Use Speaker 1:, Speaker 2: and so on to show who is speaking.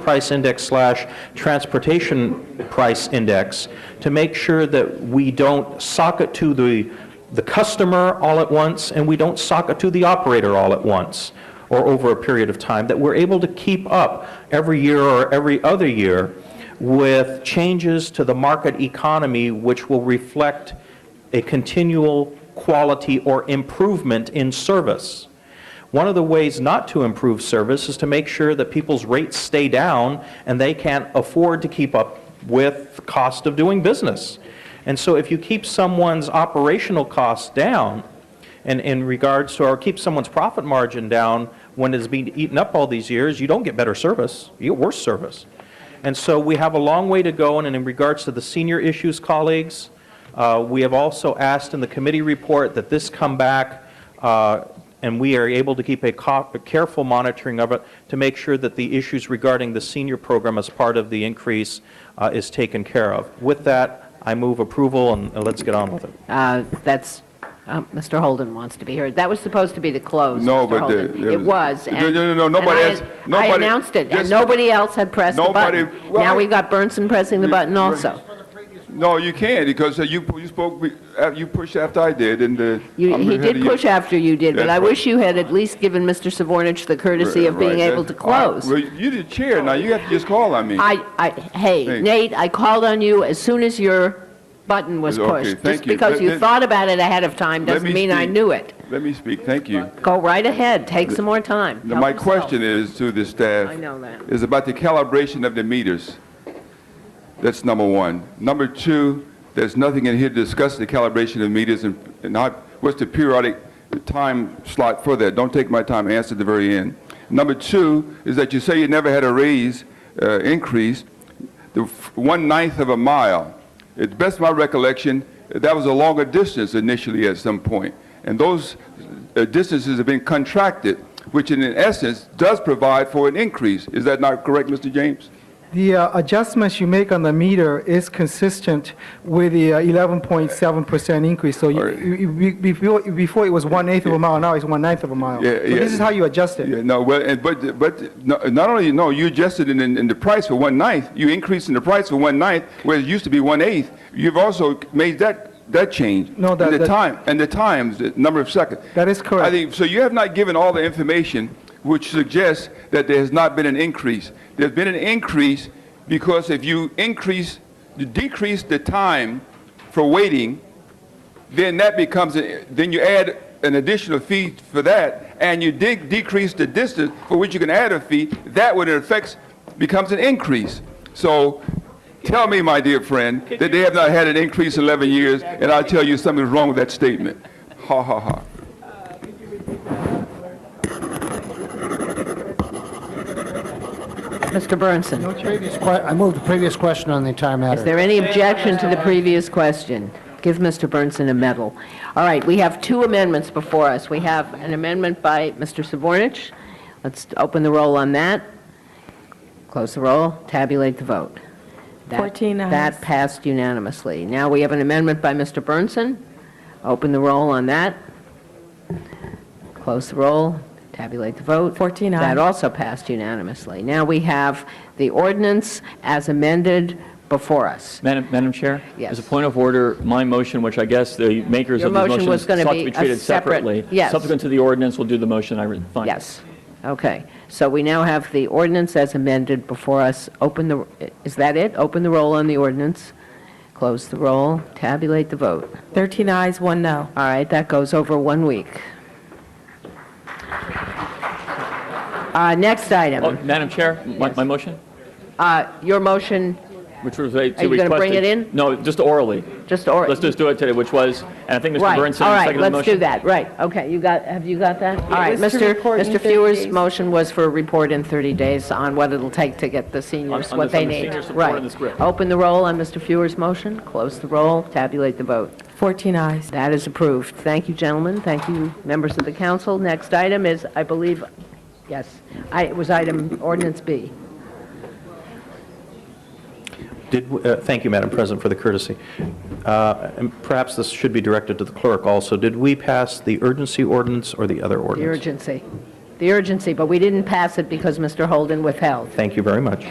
Speaker 1: price index slash transportation price index to make sure that we don't sock it to the, the customer all at once and we don't sock it to the operator all at once or over a period of time, that we're able to keep up every year or every other year with changes to the market economy which will reflect a continual quality or improvement in service. One of the ways not to improve service is to make sure that people's rates stay down and they can't afford to keep up with the cost of doing business. And so if you keep someone's operational costs down and in regards to, or keep someone's profit margin down when it's been eaten up all these years, you don't get better service, you get worse service. And so we have a long way to go, and in regards to the senior issues colleagues, uh, we have also asked in the committee report that this come back, uh, and we are able to keep a co- a careful monitoring of it to make sure that the issues regarding the senior program as part of the increase uh, is taken care of. With that, I move approval, and and let's get on with it.
Speaker 2: Uh, That's, um, Mr. Holden wants to be heard. That was supposed to be the close,
Speaker 3: No,
Speaker 2: Mr.
Speaker 3: but the-
Speaker 2: Holden.
Speaker 3: there
Speaker 2: It was.
Speaker 3: was- No,
Speaker 2: and-
Speaker 3: no, no, no,
Speaker 2: and
Speaker 3: nobody
Speaker 2: I-
Speaker 3: else- nobody-
Speaker 2: I announced it, and
Speaker 3: just-
Speaker 2: nobody else had pressed the
Speaker 3: Nobody-
Speaker 2: button. Now
Speaker 3: well,
Speaker 2: we've got Burnson pressing the
Speaker 3: you-
Speaker 2: button
Speaker 3: right.
Speaker 2: also.
Speaker 3: No, you can't, because uh, you, you spoke, be- uh, you pushed after I did, and uh
Speaker 2: You-
Speaker 3: I'm
Speaker 2: He
Speaker 3: ahead
Speaker 2: did
Speaker 3: of you.
Speaker 2: push after you did, but
Speaker 3: That's
Speaker 2: I
Speaker 3: right.
Speaker 2: wish you had at least given Mr. Savornich the courtesy of being
Speaker 3: Right,
Speaker 2: able to
Speaker 3: that's- all right.
Speaker 2: close.
Speaker 3: Well, you the chair, now you have to just call on me.
Speaker 2: I, I, hey,
Speaker 3: Hey.
Speaker 2: Nate, I called on you as soon as your button was
Speaker 3: Okay,
Speaker 2: pushed.
Speaker 3: thank
Speaker 2: Just
Speaker 3: you.
Speaker 2: because
Speaker 3: Let-
Speaker 2: you
Speaker 3: let-
Speaker 2: thought about it ahead of time
Speaker 3: Let
Speaker 2: doesn't
Speaker 3: me
Speaker 2: mean I
Speaker 3: speak.
Speaker 2: knew it.
Speaker 3: Let me speak, thank you.
Speaker 2: Go right ahead, take some more time.
Speaker 3: Now,
Speaker 2: Help
Speaker 3: My
Speaker 2: yourself.
Speaker 3: question is to the staff.
Speaker 2: I know that.
Speaker 3: Is about the calibration of the meters. That's number one. Number two, there's nothing in here to discuss the calibration of meters and, and how, what's the periodic time slot for that? Don't take my time, answer at the very end. Number two is that you say you never had a raise, uh, increase, the f- one-ninth of a mile. At best my recollection, that was a longer distance initially at some point. And those uh, distances have been contracted, which in essence does provide for an increase. Is that not correct, Mr. James?
Speaker 4: The uh, adjustments you make on the meter is consistent with the uh, 11.7% increase. So you-
Speaker 3: All right.
Speaker 4: you- you- be- before before it was one-eighth of a mile, now it's one-ninth of a mile.
Speaker 3: Yeah,
Speaker 4: So
Speaker 3: yeah.
Speaker 4: This is how you adjust it.
Speaker 3: Yeah, no, well, and, but, but, no- not only, no, you adjusted in, in in the price for one ninth, you increased in the price for one ninth, where it used to be one eighth. You've also made that, that change.
Speaker 4: No, that-
Speaker 3: And the
Speaker 4: that-
Speaker 3: time, and the times, the number of seconds.
Speaker 4: That is correct.
Speaker 3: I think, so you have not given all the information which suggests that there has not been an increase. There's been an increase because if you increase, you decrease the time for waiting, then that becomes, a- then you add an additional fee for that, and you de- decrease the distance for which you can add a fee, that would in effect becomes an increase. So tell me, my dear friend, that they have not had an increase in 11 years, and I'll tell you something's wrong with that statement. Ha, ha, ha.
Speaker 2: Mr. Burnson.
Speaker 5: Previous que- I move the previous question on the entire
Speaker 2: Is
Speaker 5: matter.
Speaker 2: there any objection to the previous question? Give Mr. Burnson a medal. All right, we have two amendments before us. We have an amendment by Mr. Savornich. Let's open the roll on that, close the roll, tabulate the vote. That-
Speaker 6: 14 ayes.
Speaker 2: That passed unanimously. Now we have an amendment by Mr. Burnson. Open the roll on that, close the roll, tabulate the vote.
Speaker 6: 14 ayes.
Speaker 2: That also passed unanimously. Now we have the ordinance as amended before us.
Speaker 7: Madam, Madam Chair?
Speaker 2: Yes.
Speaker 7: As a point of order, my motion, which I guess the makers
Speaker 2: Your
Speaker 7: of the
Speaker 2: motion
Speaker 7: motion
Speaker 2: was gonna
Speaker 7: sought
Speaker 2: be
Speaker 7: to be
Speaker 2: a
Speaker 7: treated
Speaker 2: separate-
Speaker 7: separately.
Speaker 2: yes.
Speaker 7: Subsequent to the ordinance, we'll do the motion I read. Fine.
Speaker 2: Yes, okay. So we now have the ordinance as amended before us. Open the, is that it? Open the roll on the ordinance, close the roll, tabulate the vote.
Speaker 6: 13 ayes, one no.
Speaker 2: All right, that goes over one week. Uh, Next
Speaker 7: Oh,
Speaker 2: item,
Speaker 7: Madam Chair, my, my motion, Oh.
Speaker 2: Uh, your motion,
Speaker 7: which was a- to request.
Speaker 2: you gonna bring it in?
Speaker 7: No, just orally.
Speaker 2: just, or,
Speaker 7: Let's just do it today, which was, and I think Mr.
Speaker 2: right, all
Speaker 7: Burnson
Speaker 2: right,
Speaker 7: seconded the motion.
Speaker 2: let's do that, right, okay, you got, have you got that? All right,
Speaker 6: was to
Speaker 2: Mr.
Speaker 6: report in
Speaker 2: Mr.
Speaker 6: 30
Speaker 2: Feuer's
Speaker 6: days.
Speaker 2: motion was for a report in 30 days on what it'll take to get the seniors
Speaker 7: On- on
Speaker 2: what
Speaker 7: the-
Speaker 2: they
Speaker 7: on the
Speaker 2: need.
Speaker 7: senior support
Speaker 2: Right.
Speaker 7: in this group.
Speaker 2: Open the roll on Mr. Feuer's motion, close the roll, tabulate the vote.
Speaker 6: 14 ayes.
Speaker 2: That is approved. Thank you, gentlemen. Thank you, members of the council. Next item is, I believe, yes, I- it was item ordinance B.
Speaker 1: Did, uh, thank you, Madam President, for the courtesy. Uh, And perhaps this should be directed to the clerk also. Did we pass the urgency ordinance or the other
Speaker 2: The
Speaker 1: ordinance?
Speaker 2: urgency. The urgency, but we didn't pass it because Mr. Holden withheld.
Speaker 1: Thank you very much.